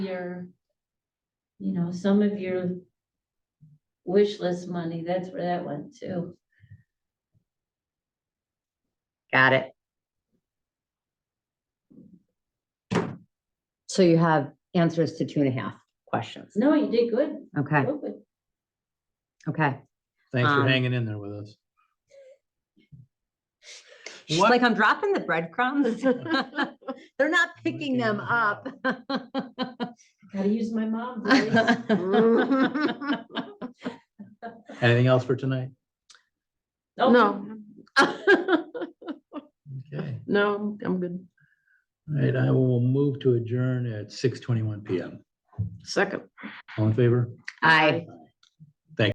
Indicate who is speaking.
Speaker 1: your, you know, some of your wish list money, that's where that went to.
Speaker 2: Got it. So you have answers to two and a half questions.
Speaker 1: No, you did good.
Speaker 2: Okay,
Speaker 1: real good.
Speaker 2: okay.
Speaker 3: Thanks
Speaker 2: Um,
Speaker 3: for hanging in there with us.
Speaker 2: She's
Speaker 3: What-
Speaker 2: like, I'm dropping the breadcrumbs. They're not picking
Speaker 3: Picking
Speaker 2: them
Speaker 3: them
Speaker 2: up.
Speaker 1: Gotta use my mom. voice.
Speaker 2: No.
Speaker 3: Anything else for tonight?
Speaker 1: Oh.
Speaker 4: No,
Speaker 3: Okay,
Speaker 4: no, I'm good.
Speaker 3: all right, I will move to adjourn at six twenty-one PM.
Speaker 4: Second.
Speaker 3: All in favor?
Speaker 2: I,
Speaker 3: Aye.